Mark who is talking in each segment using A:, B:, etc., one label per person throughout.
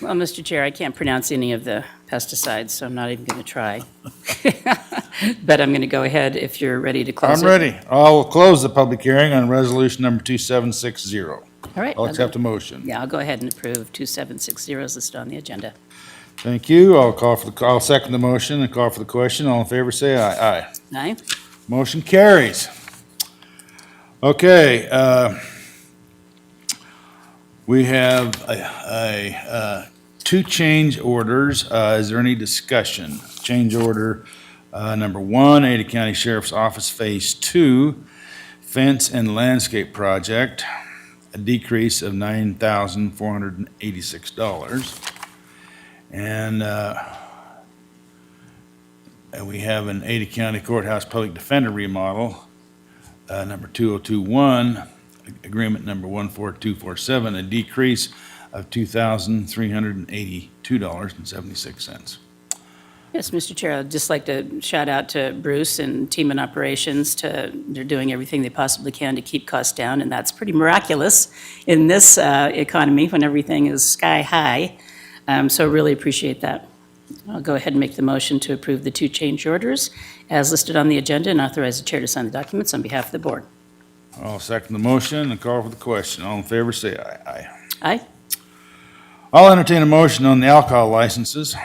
A: Well, Mr. Chair, I can't pronounce any of the pesticides, so I'm not even going to try. But I'm going to go ahead if you're ready to close
B: I'm
A: it.
B: ready. I'll close the public hearing on resolution number 2760.
A: All right.
B: I'll
A: I'll
B: accept
A: go-
B: a motion.
A: Yeah, I'll go ahead and approve 2760 is listed on the agenda.
B: Thank you. I'll call for the, I'll second the motion and call for the question. All in favor, say aye. Aye.
A: Aye?
B: Motion carries. Okay, uh, we have a, a, uh, two change orders. Uh, Is there any discussion? Change order uh, number one, Ada County Sheriff's Office Phase Two Fence and Landscape Project, a decrease of $9,486. And uh, and we have an Ada County Courthouse Public Defender remodel, uh, number 2021, agreement number 14247, a decrease of $2,382.76.
A: Yes, Mr. Chair, I'd just like to shout out to Bruce and Team in Operations to, they're doing everything they possibly can to keep costs down, and that's pretty miraculous in this uh, economy when everything is sky high. Um, So really appreciate that. I'll go ahead and make the motion to approve the two change orders as listed on the agenda and authorize the chair to sign the documents on behalf of the board.
B: I'll second the motion and call for the question. All in favor, say aye. Aye.
A: Aye?
B: I'll entertain a motion on the alcohol licenses.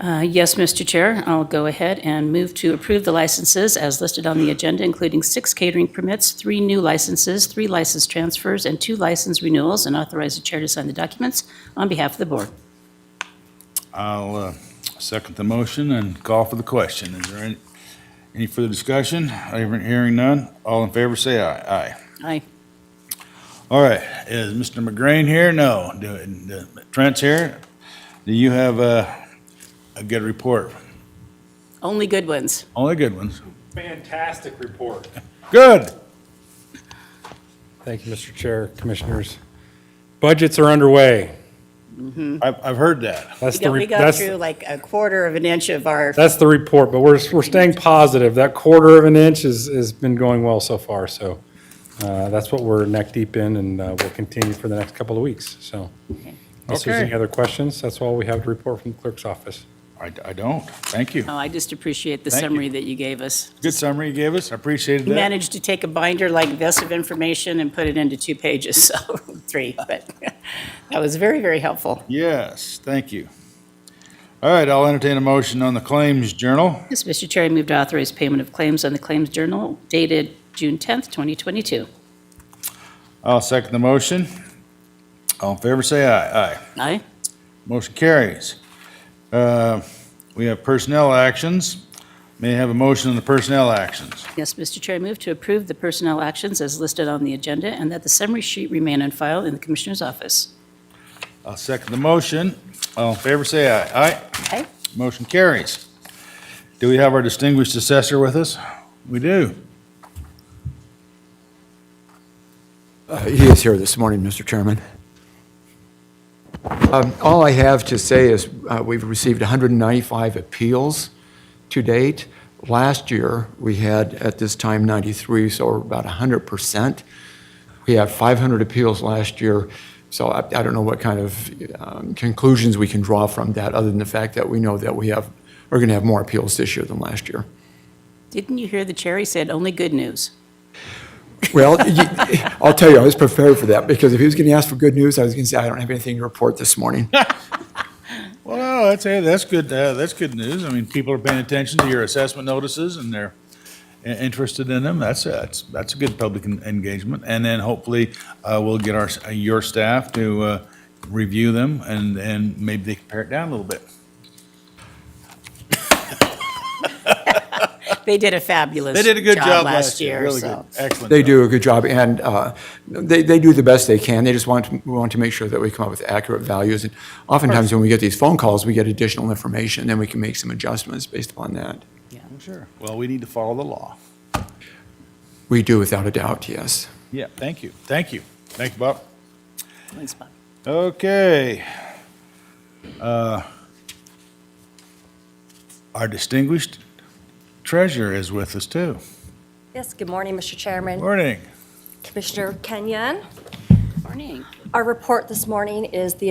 A: Uh, Yes, Mr. Chair, I'll go ahead and move to approve the licenses as listed on the agenda, including six catering permits, three new licenses, three license transfers, and two license renewals, and authorize the chair to sign the documents on behalf of the board.
B: I'll uh, second the motion and call for the question. Is there any, any further discussion? Hearing none. All in favor, say aye. Aye.
A: Aye.
B: All right, is Mr. McGrain here? No. Do- do- Trent's here? Do you have a, a good report?
A: Only good ones.
B: Only good ones.
C: Fantastic report.
B: Good.
C: Thank you, Mr. Chair, Commissioners. Budgets are underway.
B: I've, I've heard that.
C: That's
A: We
C: the,
A: got,
C: re-
A: we got
C: that's,
A: through like a quarter of an inch of our,
C: that's the report, but we're, we're staying positive. That quarter of an inch is, has been going well so far, so uh, that's what we're neck deep in, and uh, we'll continue for the next couple of weeks, so. Unless there's
B: Okay.
C: any other questions, that's all we have to report from the clerk's office.
B: I, I don't. Thank you.
A: oh, I just appreciate the
B: Thank you.
A: summary that you gave us.
B: Good summary you gave us. I appreciated
A: You
B: that.
A: managed to take a binder like this of information and put it into two pages, so, three, but that was very, very helpful.
B: Yes, thank you. All right, I'll entertain a motion on the claims journal.
A: Yes, Mr. Chair, I move to authorize payment of claims on the Claims Journal dated June 10th, 2022.
B: I'll second the motion. All in favor, say aye. Aye.
A: Aye.
B: Motion carries. Uh, We have personnel actions. May I have a motion on the personnel actions?
A: Yes, Mr. Chair, I move to approve the personnel actions as listed on the agenda and that the summary sheet remain on file in the Commissioner's office.
B: I'll second the motion. All in favor, say aye. Aye.
A: Aye.
B: Motion carries. Do we have our distinguished assessor with us? We do.
D: Uh, He is here this morning, Mr. Chairman. Um, All I have to say is uh, we've received 195 appeals to date. Last year, we had at this time 93, so we're about 100%. We had 500 appeals last year, so I I don't know what kind of um, conclusions we can draw from that, other than the fact that we know that we have, are going to have more appeals this year than last year.
A: Didn't you hear the chair? He said only good news.
D: Well, you- I'll tell you, I was prepared for that, because if he was going to ask for good news, I was going to say, I don't have anything to report this morning.
B: Well, that's, hey, that's good, uh, that's good news. I mean, people are paying attention to your assessment notices and they're i- interested in them. That's, that's, that's a good public en- engagement. And then hopefully, uh, we'll get our, s- uh, your staff to, uh, review them and, and maybe they can pare it down a little bit.
A: They did a fabulous
B: They did a good job
A: last year,
B: Really
A: so.
B: good. Excellent.
D: They
B: job.
D: do a good job, and uh, they, they do the best they can. They just want, to- we want to make sure that we come up with accurate values. And oftentimes, when we get these phone calls, we get additional information, then we can make some adjustments based upon that.
B: Sure. Well, we need to follow the law.
D: We do, without a doubt, yes.
B: Yeah, thank you. Thank you. Thank you, Bob.
A: Thanks, Bob.
B: Okay. Uh, Our distinguished treasurer is with us too.
E: Yes, good morning, Mr. Chairman,
B: Morning.
E: Commissioner Kenyon.
A: Morning.
E: Our report this morning is the